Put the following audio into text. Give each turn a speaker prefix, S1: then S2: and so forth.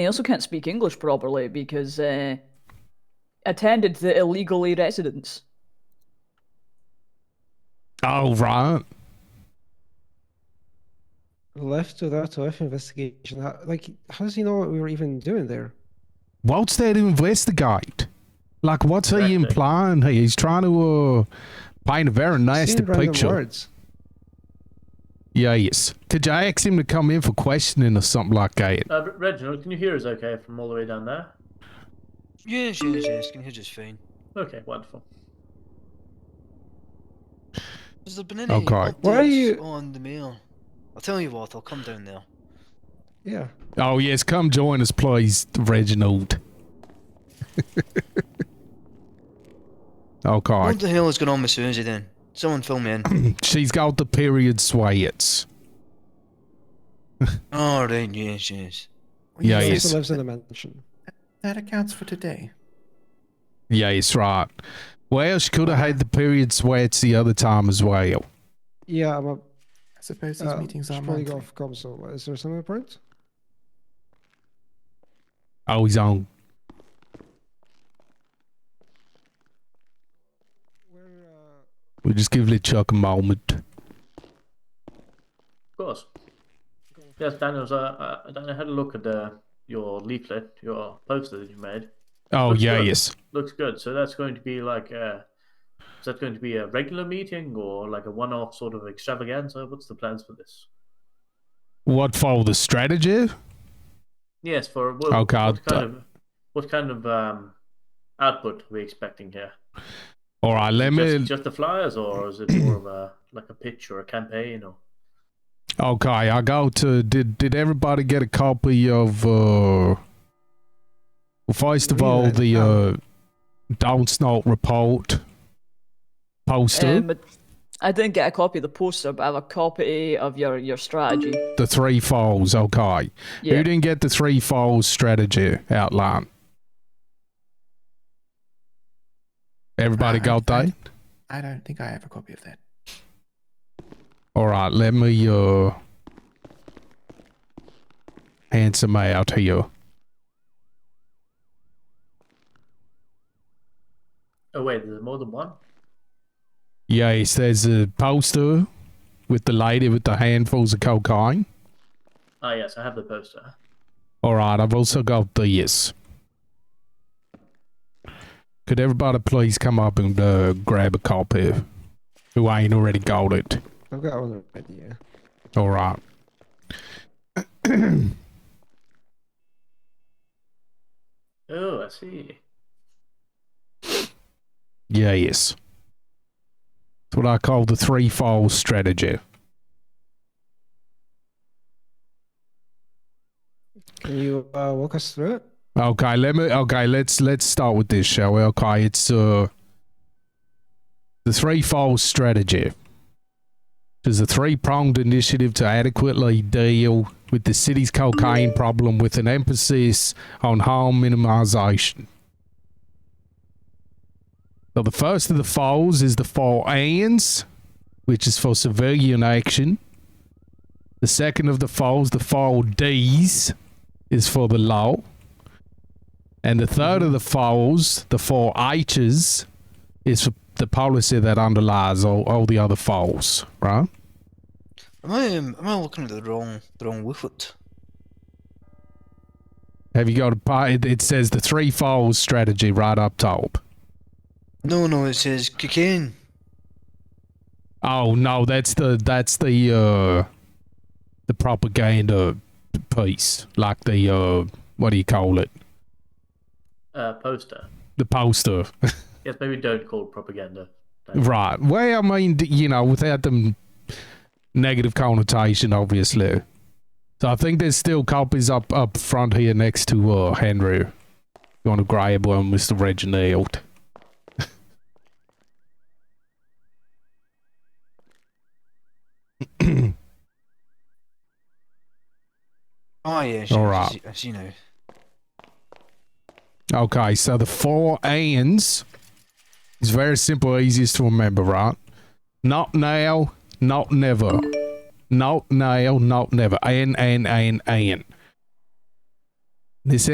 S1: I also can't speak English properly because uh, attended the illegally residence.
S2: All Oh, right.
S3: left to that OF investigation. How, like, how does he know what we were even doing there?
S2: What's there to investigate? Like, what's he
S4: Correct, eh?
S2: implying here? He's trying to uh, paint a very nasty
S3: Seemed random
S2: picture.
S3: Words.
S2: Yeah, yes. Did you ask him to come in for questioning or something like that?
S4: Uh, Re- Reginald, can you hear us okay from all the way down there?
S5: Yes, yes, yes. Can hear just fine.
S4: Okay, wonderful.
S5: Has there been any
S2: Okay.
S3: Why are
S5: updates
S3: you-
S5: on the mail? I'll tell you what. I'll come down there.
S3: Yeah.
S2: Oh, yes. Come join us, please, Reginald. okay.
S5: What the hell is going on with Susie then? Someone fill me in.
S2: She's got the period sweats.
S5: All right. Yes, yes.
S2: Yeah,
S3: he
S2: yes.
S3: also lives in a mansion.
S6: That accounts for today.
S2: Yes, right. Well, she could have had the period sweats the other time as well.
S3: Yeah, I'm a.
S6: I suppose these
S3: Uh,
S6: meetings
S3: should
S6: are
S3: probably go
S6: monthly.
S3: off comm, so Is there some report?
S2: Oh, he's on.
S3: Where, uh,
S2: We'll just give Chuck a moment.
S4: Of course. Yes, Daniel's. Uh, uh, Daniel had a look at uh, your leaflet, your poster that you made.
S2: Oh,
S4: Looks
S2: yeah,
S4: good.
S2: yes.
S4: Looks good. So that's going to be like a. Is that going to be a regular meeting or like a one-off sort of extravaganza? What's the plans for this?
S2: What for the strategy?
S4: Yes, for what,
S2: Oh, God.
S4: what kind of what kind of um, output are we expecting here?
S2: All right, let me.
S4: Just, just the flyers, or is it more of a like a pitch or a campaign? Or
S2: Okay, I go to. Did did everybody get a copy of? uh Well, first of
S3: Read
S2: all,
S3: it.
S2: the uh
S3: Oh.
S2: Don't Snort report poster,
S1: Um, but I didn't get a copy of the poster, but I have a copy of your, your strategy.
S2: the three falls. Okay,
S1: Yeah.
S2: who didn't get the three falls strategy outline? Everybody
S6: I-
S2: got
S6: I-
S2: that?
S6: I don't think I have a copy of that.
S2: All right, let me uh hand some out here.
S4: oh wait, there's more than one.
S2: Yes, there's a poster with the lady with the handfuls of cocaine.
S4: Ah yes, I have the poster.
S2: All right, I've also got this. Could everybody please come up and uh, grab a copy? Who ain't already got it?
S3: I've got one already. Yeah.
S2: All right.
S4: Oh, I see.
S2: Yeah, yes. It's what I call the threefold strategy.
S3: Can you uh, walk us through it?
S2: Okay, let me. Okay, let's let's start with this, shall we? Okay, it's uh the threefold strategy. There's a three-pronged initiative to adequately deal with the city's cocaine problem, with an emphasis on harm minimization. So the first of the falls is the four ands, which is for civilian action. The second of the falls, the four D's, is for the law. And the 3rd of the falls, the four H's, is for the policy that underlies all, all the other falls, right?
S5: Am I um, am I looking at the wrong the wrong leaflet?
S2: Have you got a pi- It, it says the three falls strategy right up top.
S5: No, no. It says cocaine.
S2: Oh no, that's the that's the uh the propaganda piece, like the uh what do you call it?
S4: Uh, poster.
S2: The poster,
S4: Yes, maybe don't call it propaganda.
S2: right? Well, I mean, d- you know, without the negative connotation, obviously. So I think there's still copies up up front here next to uh Henry. You want to grab one, Mister Reginald?
S5: Oh yes.
S2: All
S5: yes,
S2: right.
S5: I see, I see now.
S2: Okay, so the four ands is very simple, easiest to remember, right? Not now, not never. Not now, not never. And, and, and, and. This